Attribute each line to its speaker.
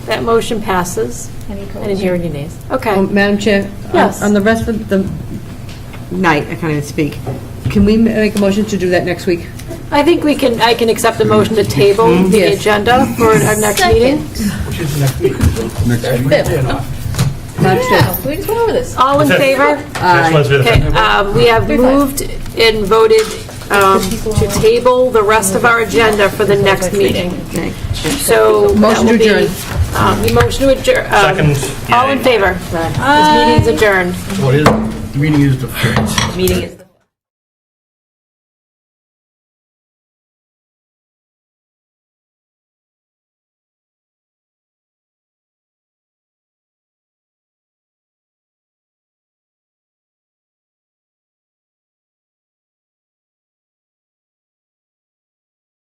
Speaker 1: That motion passes.
Speaker 2: Any
Speaker 1: I didn't
Speaker 2: opposed?
Speaker 1: hear any nays.
Speaker 3: Well,
Speaker 1: Okay.
Speaker 3: Oh, Madam Chair? on-
Speaker 1: Yes.
Speaker 3: On the rest of the night, I can't even speak. Can we make a motion to do that next week?
Speaker 1: I think we can, I can accept the motion to table the
Speaker 3: Mm-hmm. Yes.
Speaker 1: agenda for our next meeting.
Speaker 4: Which is next week.
Speaker 5: Next week.
Speaker 4: Yeah, no.
Speaker 3: Madam Chair?
Speaker 2: Yeah, we just went over this.
Speaker 1: All in favor?
Speaker 3: Aye.
Speaker 1: Okay, um, we have moved and voted um, to table the rest of our agenda for the next meeting.
Speaker 3: Okay.
Speaker 1: So that
Speaker 3: Motion to
Speaker 1: will be...
Speaker 3: adjourn.
Speaker 1: um, you Motion to adjourn. Second. All in favor? This meeting's adjourned.
Speaker 4: What is, the meeting is the
Speaker 6: Meeting is